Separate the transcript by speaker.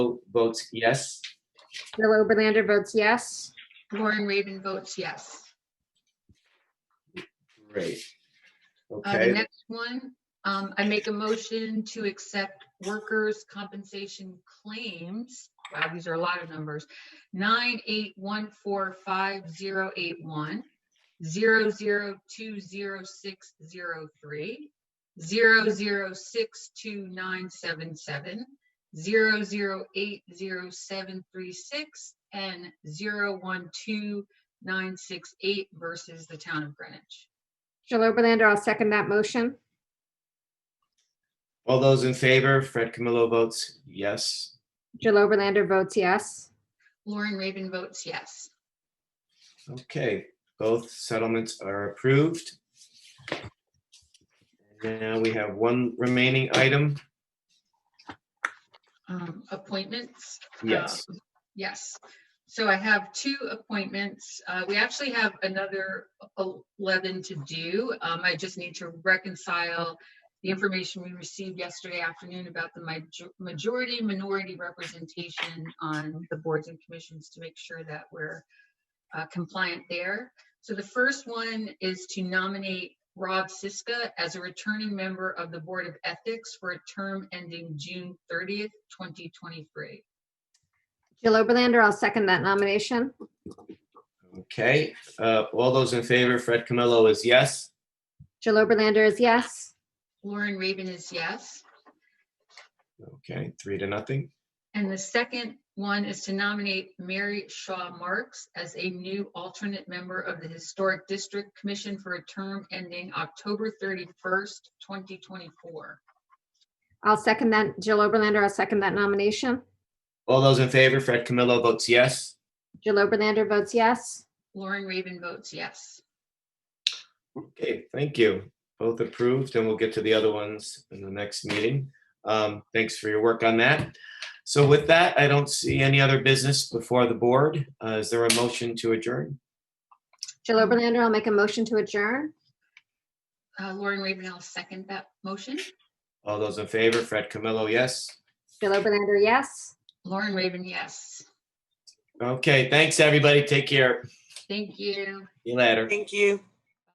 Speaker 1: votes yes.
Speaker 2: Bill Oberlander votes yes.
Speaker 3: Lauren Raven votes yes.
Speaker 1: Great.
Speaker 3: Uh, The
Speaker 1: Okay,
Speaker 3: next one, um, I make a motion to accept workers' compensation claims. Wow, these are a lot of numbers. Nine eight one four five zero eight one, zero zero two zero six zero three, zero zero six two nine seven seven, zero zero eight zero seven three six, and zero one two nine six eight versus the town of Greenwich.
Speaker 2: Jill Oberlander, I'll second that motion.
Speaker 1: all those in favor, Fred Camillo votes yes.
Speaker 2: Jill Oberlander votes yes.
Speaker 3: Lauren Raven votes yes.
Speaker 1: Okay, both settlements are approved. Now we have one remaining item.
Speaker 3: Um, appointments.
Speaker 1: Yes,
Speaker 3: Um, Yes. So I have two appointments. Uh, we actually have another eleven to do. Um, I just need to reconcile the information we received yesterday afternoon about the major- majority minority representation on the boards and commissions to make sure that we're uh, compliant there. So the first one is to nominate Rob Siska as a returning member of the Board of Ethics for a term ending June thirtieth, twenty twenty-three.
Speaker 2: Jill Oberlander, I'll second that nomination.
Speaker 1: okay. uh, All those in favor, Fred Camillo is yes.
Speaker 2: Jill Oberlander is yes.
Speaker 3: Lauren Raven is yes.
Speaker 1: Okay, three to nothing.
Speaker 3: And the second one is to nominate Mary Shaw Marks as a new alternate member of the Historic District Commission for a term ending October 31st, 2024.
Speaker 2: I'll second that. Jill Oberlander, I'll second that nomination.
Speaker 1: All those in favor, Fred Camillo votes yes.
Speaker 2: Jill Oberlander votes yes.
Speaker 3: Lauren Raven votes yes.
Speaker 1: Okay, thank you. Both approved, and we'll get to the other ones in the next meeting. Um, Thanks for your work on that. So with that, I don't see any other business before the board. Uh, Is there a motion to adjourn?
Speaker 2: Jill Oberlander, I'll make a motion to adjourn.
Speaker 3: Uh, Lauren Raven, I'll second that motion.
Speaker 1: All those in favor, Fred Camillo, yes.
Speaker 2: Jill Oberlander, yes.
Speaker 3: Lauren Raven, yes.
Speaker 1: Okay, thanks, everybody. Take care.
Speaker 3: Thank you.
Speaker 1: See you later.
Speaker 4: Thank you.